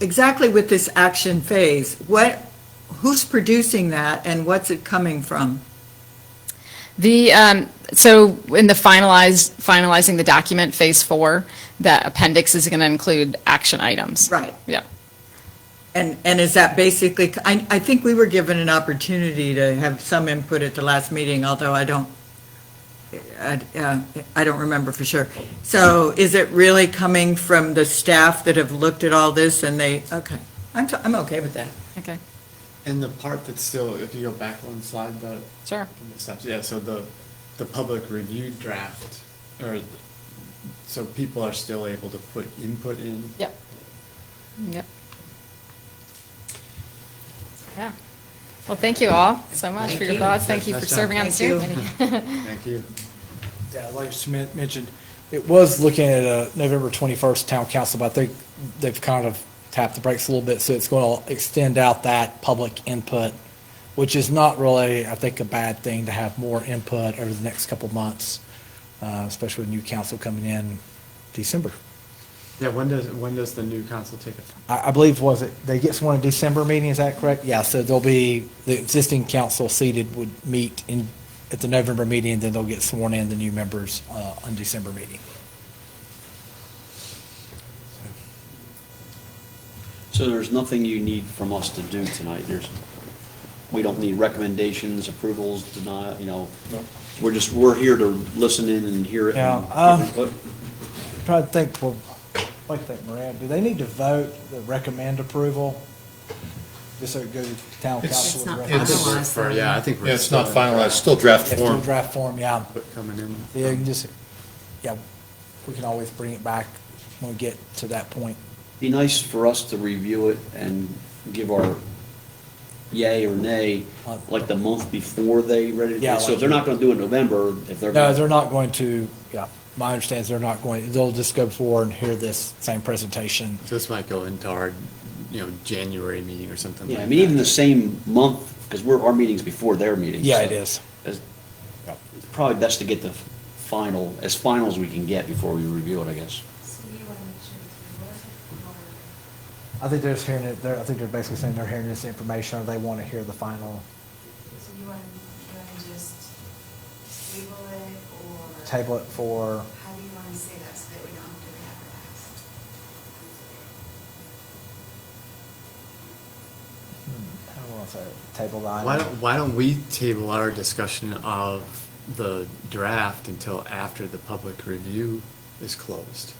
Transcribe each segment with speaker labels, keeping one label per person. Speaker 1: exactly with this action phase, what, who's producing that and what's it coming from?
Speaker 2: The, um, so in the finalize, finalizing the document, phase four, that appendix is going to include action items.
Speaker 1: Right.
Speaker 2: Yeah.
Speaker 1: And, and is that basically, I, I think we were given an opportunity to have some input at the last meeting, although I don't, I, uh, I don't remember for sure. So is it really coming from the staff that have looked at all this and they, okay, I'm, t- I'm okay with that.
Speaker 2: Okay.
Speaker 3: And the part that's still, if you go back one slide, the.
Speaker 2: Sure.
Speaker 3: the steps, Yeah, so the, the public review draft, or, so people are still able to put input in.
Speaker 2: Yep. Yep. Yeah. Well, thank you all so much for your thoughts. Thank you for
Speaker 3: Nice job.
Speaker 2: serving on the steering
Speaker 1: Thank
Speaker 2: committee.
Speaker 3: Thank you.
Speaker 4: Yeah, like Smith mentioned, it was looking at a November 21st town council, but I think they've kind of tapped the brakes a little bit, so it's going to extend out that public input, which is not really, I think, a bad thing to have more input over the next couple of months, uh, especially with new council coming in December.
Speaker 3: Yeah, when does, when does the new council take effect?
Speaker 4: I, I believe, was it, they get one in December meeting, is that correct? Yeah, so there'll be, the existing council seated would meet in, at the November meeting, then they'll get sworn in, the new members, uh, on December meeting.
Speaker 5: So there's nothing you need from us to do tonight, there's, we don't need recommendations, approvals, denial, you know, we're just, we're here to listen in and hear it. and
Speaker 4: Yeah, uh,
Speaker 5: give input.
Speaker 4: Trying to think, well, I think, Moran, do they need to vote the recommend approval? Just so it goes to town council.
Speaker 6: It's not
Speaker 4: with
Speaker 6: It's-
Speaker 4: recommend.
Speaker 6: finalized.
Speaker 3: For- Yeah, I think. we're
Speaker 7: Yeah, it's not
Speaker 3: still in
Speaker 7: finalized,
Speaker 3: draft
Speaker 7: still draft
Speaker 4: It's still
Speaker 7: form.
Speaker 4: draft form, yeah.
Speaker 3: Input coming in.
Speaker 4: Yeah, you can just, yeah, we can always bring it back when we get to that point.
Speaker 5: Be nice for us to review it and give our yay or nay, like the month before they ready
Speaker 4: Uh, Yeah,
Speaker 5: to, so
Speaker 4: like-
Speaker 5: if they're not gonna do it in November, if they're.
Speaker 4: No, they're not going to, yeah, my understanding is they're not going, they'll just go forward and hear this same presentation.
Speaker 3: This might go into our, you know, January meeting or something like
Speaker 5: Yeah,
Speaker 3: that.
Speaker 5: I mean, even the same month, because we're, our meeting's before their meeting.
Speaker 4: Yeah,
Speaker 5: so
Speaker 4: it is.
Speaker 5: it's Probably best to get the final, as final as we can get before we review it, I guess.
Speaker 6: So you want to make sure it's
Speaker 4: I think they're just hearing it, they're, I think they're basically saying they're hearing this information, or they want to hear the final
Speaker 6: recorded, or, so you want, you want to just table it, or?
Speaker 4: table it for
Speaker 6: How do you want to say that, so that we don't have to re-advertise?
Speaker 4: I don't want to say table the
Speaker 3: Why
Speaker 4: item.
Speaker 3: don't, why don't we table our discussion of the draft until after the public review is closed?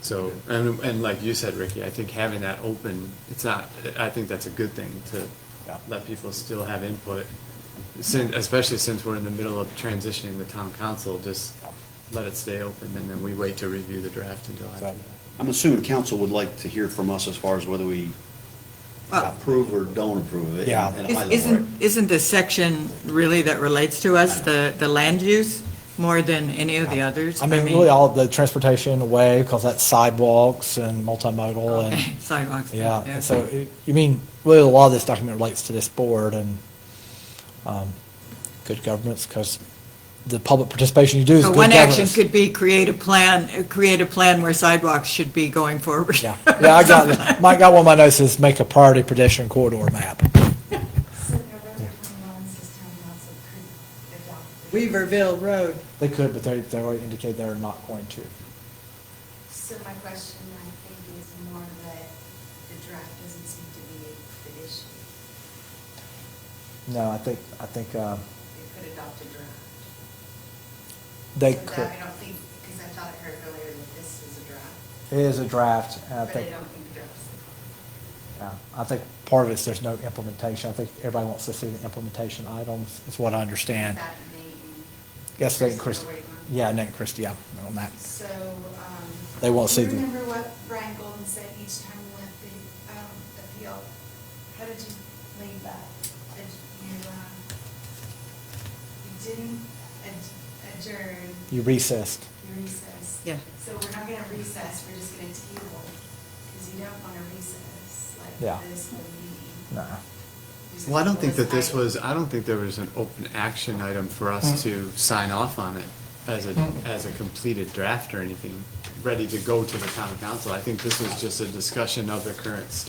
Speaker 3: So, and, and like you said, Ricky, I think having that open, it's not, I think that's a good thing to
Speaker 4: Yeah.
Speaker 3: let people still have input. Since, especially since we're in the middle of transitioning the town council, just let it stay open and then we wait to review the draft until after.
Speaker 4: So-
Speaker 5: I'm assuming council would like to hear from us as far as whether we
Speaker 1: Well-
Speaker 5: approve or don't approve of it.
Speaker 4: Yeah.
Speaker 5: and- and high level, right?
Speaker 1: Isn't, isn't the section really that relates to us, the, the land use, more than any of the others?
Speaker 4: I mean, really all the transportation away, because that's sidewalks and multimodal
Speaker 1: Okay,
Speaker 4: and,
Speaker 1: Sidewalks.
Speaker 4: yeah. and So, it- you mean, really, a lot of this document relates to this board and um, good governance, because the public participation you do is
Speaker 1: So
Speaker 4: good
Speaker 1: one action
Speaker 4: governance.
Speaker 1: could be create a plan, uh, create a plan where sidewalks should be going forward.
Speaker 4: Yeah, yeah, I got, it. Mike got one of my notes, says make a priority pedestrian corridor map.
Speaker 6: So November twenty-one, says town council could adopt. the-
Speaker 1: Weaverville Road.
Speaker 4: They could, but they, they already indicate they're not going to.
Speaker 6: So my question, I think, is more that the draft doesn't seem to be the issue.
Speaker 4: No, I think, I think uh,
Speaker 6: They could adopt a draft.
Speaker 4: they
Speaker 6: So that
Speaker 4: could.
Speaker 6: I don't think, because I thought I heard earlier that this is a draft,
Speaker 4: It is a draft, and I
Speaker 6: but I
Speaker 4: think.
Speaker 6: don't think the draft's.
Speaker 4: Yeah, Uh, I think part of it is there's no implementation. I think everybody wants to see the implementation items, is what I understand.
Speaker 6: That name.
Speaker 4: Yes, Nate and
Speaker 6: Chris is
Speaker 4: Christie.
Speaker 6: the right one.
Speaker 4: Yeah, Nate and Christie, yeah, on that.
Speaker 6: So, um.
Speaker 4: They won't see
Speaker 6: Do
Speaker 4: the-
Speaker 6: you remember what Brian Golden said each time we left the, um, appeal? How did you leave that? Did you, um, you didn't ad- adjourn,
Speaker 4: You recessed.
Speaker 6: you recessed?
Speaker 1: Yeah.
Speaker 6: So we're not gonna recess, we're just gonna table, because you don't wanna recess
Speaker 4: Yeah.
Speaker 6: like this whole meeting.
Speaker 4: No.
Speaker 6: There's a
Speaker 3: Well, I don't
Speaker 6: couple
Speaker 3: think that this
Speaker 6: of
Speaker 3: was,
Speaker 6: items.
Speaker 3: I don't think there was an open action item for us to sign off on it as a, as a completed draft or anything, ready to go to the town council. I think this was just a discussion of the current state.